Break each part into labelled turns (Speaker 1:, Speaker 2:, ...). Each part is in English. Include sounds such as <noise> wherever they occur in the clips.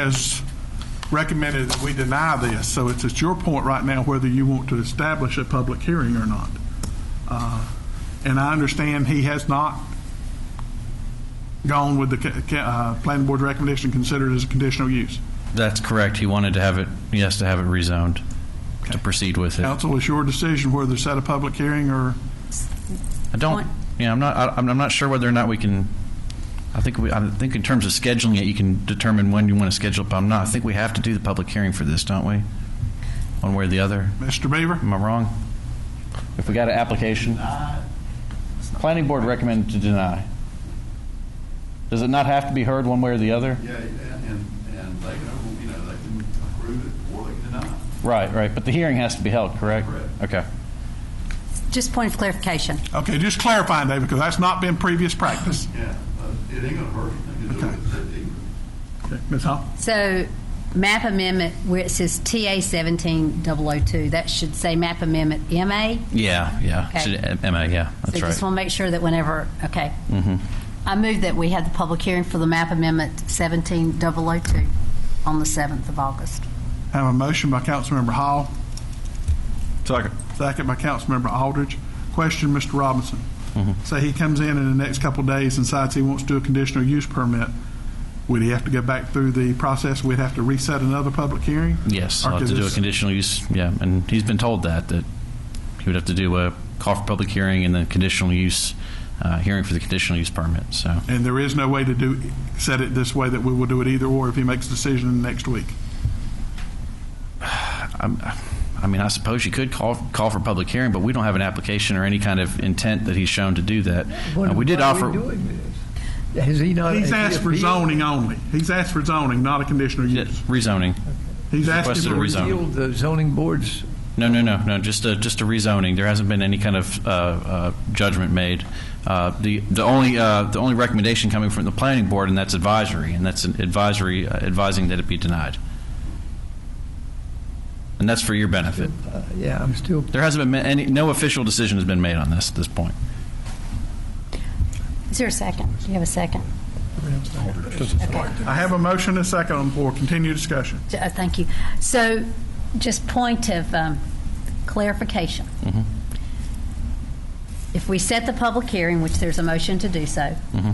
Speaker 1: has recommended that we deny this, so it's at your point right now whether you want to establish a public hearing or not. Uh, And I understand he has not gone with the ca- ca- uh, planning board recommendation considered as a conditional use.
Speaker 2: That's correct. He wanted to have it, he has to have it rezoned to proceed with it. I
Speaker 1: Council, it's your decision whether to set a public hearing or,
Speaker 2: don't, yeah, I'm not, I- I'm I'm not sure whether or not we can, I think, we. I think in terms of scheduling it, you can determine when you want to schedule it, but I'm not, I think we have to do the public hearing for this, don't we? One way or the other.
Speaker 1: Mr. Beaver?
Speaker 2: Am I wrong? If we got an application? Planning board recommended to deny. Does it not have to be heard one way or the other?
Speaker 3: Yeah, and, and they can, you know, they can approve it or they can deny it.
Speaker 2: Right, right, but the hearing has to be held, correct?
Speaker 3: Correct.
Speaker 2: Okay.
Speaker 4: Just point of clarification.
Speaker 1: Okay, just clarifying, David, because that's not been previous practice.
Speaker 3: Yeah, but it ain't gonna hurt anything to do with it.
Speaker 1: Okay, Ms. Hall?
Speaker 4: So map amendment, where it says TA 17002, that should say map amendment MA?
Speaker 2: Yeah, yeah.
Speaker 4: Okay.
Speaker 2: Should- Emma, yeah, that's
Speaker 4: So
Speaker 2: right. Mm-hmm.
Speaker 4: just want to make sure that whenever, okay. I move that we had the public hearing for the map amendment 17002 on the 7th of August.
Speaker 1: I Have a motion by Councilmember Hall. Second. Second by Councilmember Aldridge. Question, Mr. Robinson.
Speaker 2: Mm-hmm.
Speaker 1: Say he comes in in the next couple of days and decides he wants to do a conditional use permit. Would he have to go back through the process? We'd have to reset another public hearing?
Speaker 2: Yes,
Speaker 1: Or
Speaker 2: I'll have
Speaker 1: could
Speaker 2: to do a
Speaker 1: this-
Speaker 2: conditional use, yeah, and he's been told that, that he would have to do a call for public hearing and then conditional use, uh, hearing for the conditional use permit, so.
Speaker 1: And there is no way to do, set it this way that we will do it either or if he makes a decision next week.
Speaker 2: I'm- I mean, I suppose you could call, call for public hearing, but we don't have an application or any kind of intent that he's shown to do that. Uh, We did
Speaker 5: Why are
Speaker 2: offer,
Speaker 5: doing this? Has he not?
Speaker 1: He's
Speaker 5: has he
Speaker 1: asked for
Speaker 5: appealed-
Speaker 1: zoning only. He's asked for zoning, not a conditional
Speaker 2: yeah,
Speaker 1: use.
Speaker 2: rezoning.
Speaker 1: He's
Speaker 2: Requested
Speaker 1: asking
Speaker 2: a
Speaker 1: for
Speaker 2: rezon- rezoning.
Speaker 5: appealed The zoning board's,
Speaker 2: No, no, no, no. Just a just a rezoning. There hasn't been any kind of uh, uh, judgment made. Uh, the the only uh, the only recommendation coming from the planning board, and that's advisory, and that's an advisory uh, advising that it be denied. And that's for your benefit.
Speaker 5: uh, yeah, I'm still,
Speaker 2: There hasn't been ma- any no official decision has been made on this at this point.
Speaker 4: Is there a second? Do you have a second?
Speaker 1: I have a motion and a second on the floor. Continue discussion.
Speaker 4: J- uh, Thank you. So just point of um, clarification.
Speaker 2: Mm-hmm.
Speaker 4: If we set the public hearing, which there's a motion to do so,
Speaker 2: Mm-hmm.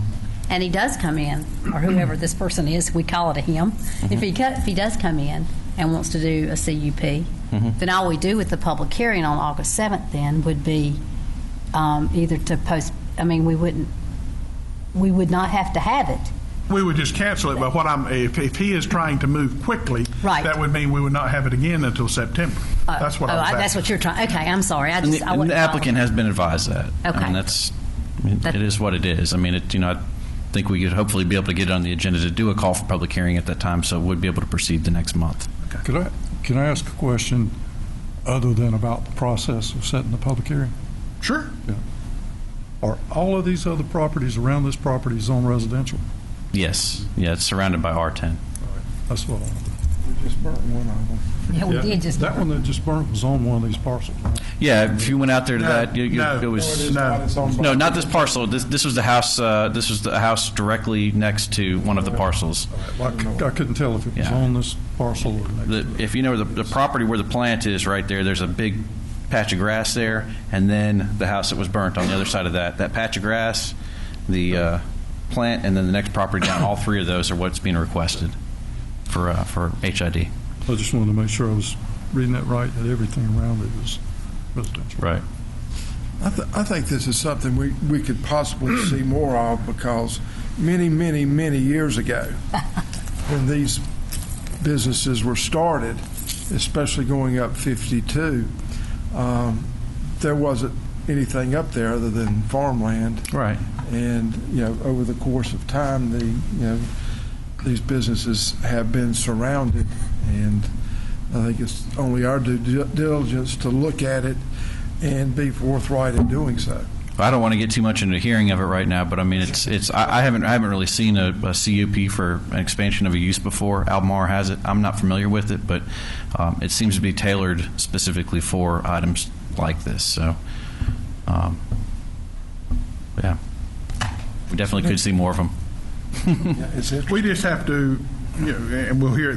Speaker 4: and he does come in, or whoever this person is, we call it a him, if
Speaker 2: Mm-hmm.
Speaker 4: he, co- if he does come in and wants to do a CUP,
Speaker 2: Mm-hmm.
Speaker 4: then all we do with the public hearing on August 7th then would be um, either to post, I mean, we wouldn't, we would not have to have it.
Speaker 1: We would just cancel it, but what I'm, if, if he is trying to move quickly,
Speaker 4: Right.
Speaker 1: that would mean we would not have it again until September.
Speaker 4: Oh,
Speaker 1: That's what
Speaker 4: oh,
Speaker 1: I was
Speaker 4: I- That's
Speaker 1: asking.
Speaker 4: what you're trying, okay, I'm sorry. I
Speaker 2: And
Speaker 4: just,
Speaker 2: the,
Speaker 4: I
Speaker 2: and the
Speaker 4: wouldn't follow.
Speaker 2: applicant has been advised that.
Speaker 4: Okay.
Speaker 2: And that's it-
Speaker 4: That-
Speaker 2: it is what it is. I mean, it, you know, I think we could hopefully be able to get it on the agenda to do a call for public hearing at that time, so we'd be able to proceed the next month.
Speaker 6: Could I, can I ask a question other than about the process of setting the public hearing?
Speaker 1: Sure.
Speaker 6: Are all of these other properties around this property zone residential?
Speaker 2: Yes, yeah, it's surrounded by R10.
Speaker 6: That's what I want. We just burnt one of them.
Speaker 4: Yeah,
Speaker 1: É.
Speaker 4: we did just.
Speaker 1: Tá,
Speaker 6: That one that just burnt was on one of these parcels. right?
Speaker 2: Yeah, if you went out there to
Speaker 1: No,
Speaker 2: that, you, you,
Speaker 1: no.
Speaker 2: it was
Speaker 1: No.
Speaker 2: no, not this parcel. This this was the house. Uh, this was the house directly next to one of the parcels.
Speaker 6: Well, I cou- I couldn't tell if it was
Speaker 2: Yeah.
Speaker 6: on this parcel or next.
Speaker 2: The, if you know the, the property where the plant is, right there, there's a big patch of grass there, and then the house that was burnt on the other side of that. That patch of grass, the uh, plant, and then the next property down. All three of those are what's being requested for uh, for HID.
Speaker 6: I just wanted to make sure I was reading that right, that everything around it is residential.
Speaker 2: Right.
Speaker 7: I, th- I think this is something we, we
Speaker 6: <clears throat>
Speaker 7: could possibly see more of because many, many, many
Speaker 6: <laughs>
Speaker 7: years ago, when these businesses were started, especially going up 52, um, there wasn't anything up there other than farmland.
Speaker 2: Right.
Speaker 7: And, you know, over the course of time, the, you know, these businesses have been surrounded. And I think it's only our due dil- diligence to look at it and be forthright in doing so.
Speaker 2: I don't want to get too much into hearing of it right now, but I mean, it's it's. I, I haven't I haven't really seen a, a CUP for an expansion of a use before. Albemarle has it. I'm not familiar with it, but um, it seems to be tailored specifically for items like this. So, um, yeah, we definitely could see more of them.
Speaker 7: It's interesting.
Speaker 1: We just have to Yeah, and we'll hear it